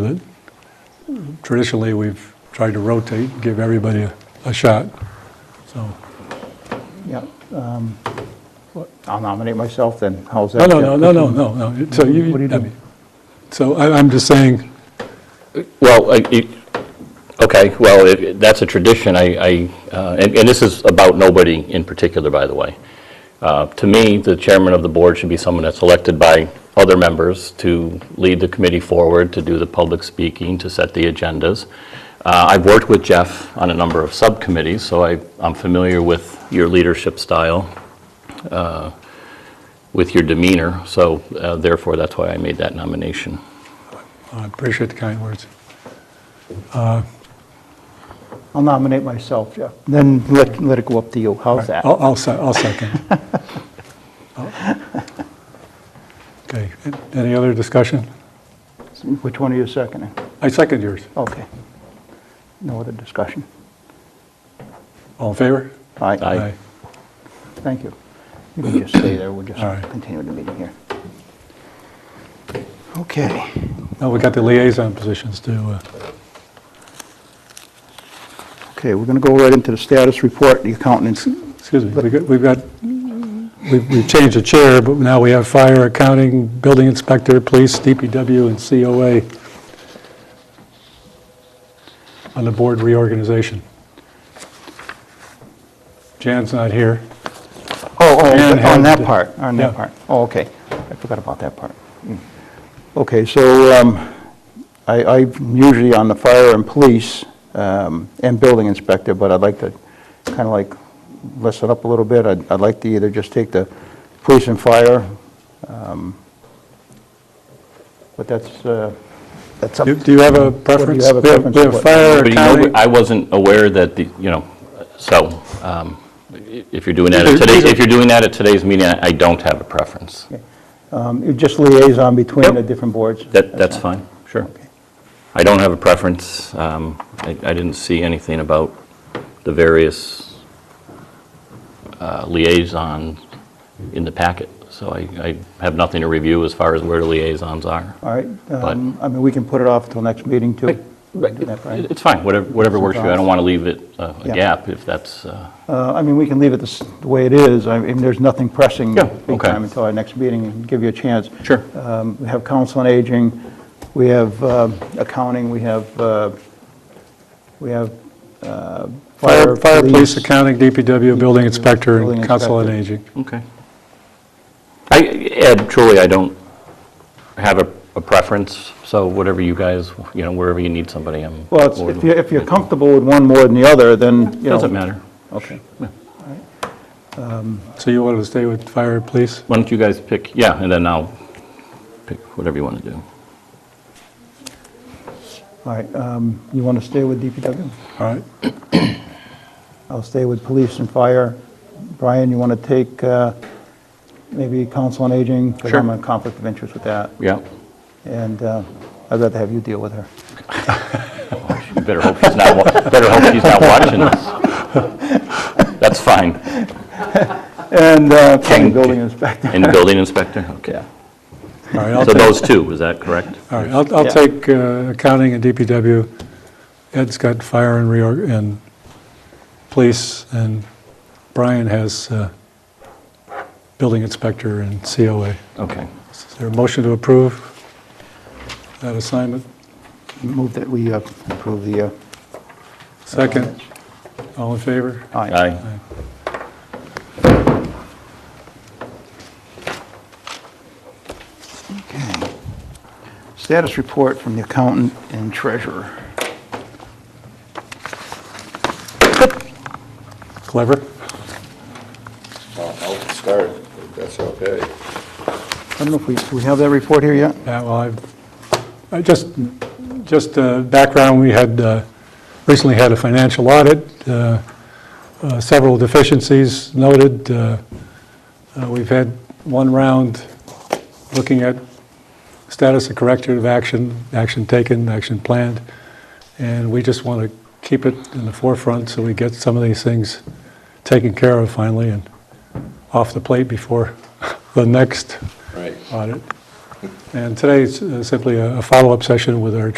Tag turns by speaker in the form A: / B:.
A: that traditionally we've tried to rotate, give everybody a, a shot. So,
B: Yeah. um, what- I'll nominate myself then. How's
A: no,
B: that?
A: no, no, no, no, no, no. So you,
B: What do you
A: I
B: do?
A: mean, so I, I'm just saying,
C: Well, I- it- okay, well, if- that's a tradition, I, I, uh, and and this is about nobody in particular, by the way. Uh, To me, the chairman of the board should be someone that's elected by other members to lead the committee forward, to do the public speaking, to set the agendas. Uh, I've worked with Jeff on a number of subcommittees, so I, I'm familiar with your leadership style, uh, with your demeanor, so uh, therefore, that's why I made that nomination.
A: oh, I appreciate the kind words.
B: I'll nominate myself, Jeff. Oh. Then let, let it go up to you. How's that?
A: I'll, I'll, se- I'll second. Okay, a- any other discussion?
B: Which one are you seconding?
A: I second yours.
B: Okay. No other discussion.
A: All in favor?
B: All
C: Aye.
B: right, thank you. You can just stay there, we'll just
A: All right.
B: continue the meeting here. Okay.
A: Now we got the liaison positions to, uh,
B: Okay, we're going to go right into the status report, the accountant's,
A: excuse me, we got- we've got, we've we've changed the chair, but now we have fire, accounting, building inspector, police, DPW, and COA on the board reorganization. Jan's not here.
B: oh,
A: And
B: oh, on
A: had-
B: that part, on
A: yeah.
B: that part. Oh, okay, I forgot about that part. Mm. Okay, so um, I, I usually on the fire and police um, and building inspector, but I'd like to kind of like less it up a little bit. I'd, I'd like to either just take the police and fire, um, but that's, uh, that's up
A: Do
B: to
A: do you have a
B: Do you
A: preference?
B: have a
A: We
B: preference
A: We
B: of
A: have
B: what?
A: fire,
C: But you know,
A: accounting.
C: I wasn't aware that the, you know, so, um, i- if you're doing that at
A: Either-
C: today's,
A: either-
C: if you're doing that at today's meeting, I I don't have a preference.
B: Um, you're Just liaison between
C: Yep.
B: the different boards?
C: That, that's fine, sure. I don't have a preference. Um, I I didn't see anything about the various uh, liaisons in the packet, so I I have nothing to review as far as where the liaisons are.
B: All right, um, I mean, we can put it off till next meeting, too. Do that, Brian.
C: It's fine, whatever whatever works for you. I don't want to leave it uh, a
B: Yeah.
C: gap if that's, uh,
B: Uh, I mean, we can leave it the s- the way it is, I mean, there's nothing pressing.
C: Yeah,
B: big
C: okay.
B: time Until our next meeting, and give you a chance.
C: Sure.
B: Um, We have council on aging, we have um, accounting, we have, uh, we have uh,
A: Fire,
B: fire,
A: fire, police,
B: police.
A: accounting, DPW, building inspector,
B: building
A: and council on
B: inspector.
A: aging.
C: Okay. I, Ed, truly, I don't have a, a preference, so whatever you guys, you know, wherever you need somebody, I'm.
B: Well, it's-
C: more
B: if
C: than-
B: you're, if you're comfortable with one more than the other, then, you know.
C: Doesn't matter.
B: Okay.
A: So you wanted to stay with fire, police?
C: Why don't you guys pick, yeah, and then I'll pick whatever you want to do.
B: All right, um, you want to stay with DPW?
A: All right.
B: I'll stay with police and fire. Brian, you want to take uh, maybe council on aging? Because I'm
C: Sure.
B: in conflict of interest with that,
C: Yeah.
B: and uh, I'd rather have you deal with her.
C: You better hope she's not, wa- better hope she's not watching this. That's fine.
B: And uh, county
C: King.
B: building inspector.
C: And the building inspector? Okay.
B: Yeah.
A: All right, I'll
C: So
A: take-
C: those two, is that correct?
A: All right, I'll, I'll
B: Yeah.
A: take uh, accounting and DPW. Ed's got fire and reorg, and police, and Brian has uh, building inspector and COA.
C: Okay.
A: Is there a motion to approve that assignment?
B: Move that we uh, approve the... uh,
A: Second, all in favor?
B: Aye.
C: Aye.
B: Okay. Status report from the accountant and treasurer.
A: Clever?
D: I'll I'll start, if that's okay.
B: I don't know if we, do we have that report here yet?
A: Yeah, well, I've, I just, just uh, background, we had, uh, recently had a financial audit, uh, uh, several deficiencies noted. uh, uh, We've had one round looking at status of corrective action, action taken, action planned, and we just want to keep it in the forefront so we get some of these things taken care of finally and off the plate before the next
D: Right.
A: audit. And today is uh, simply a a follow-up session with our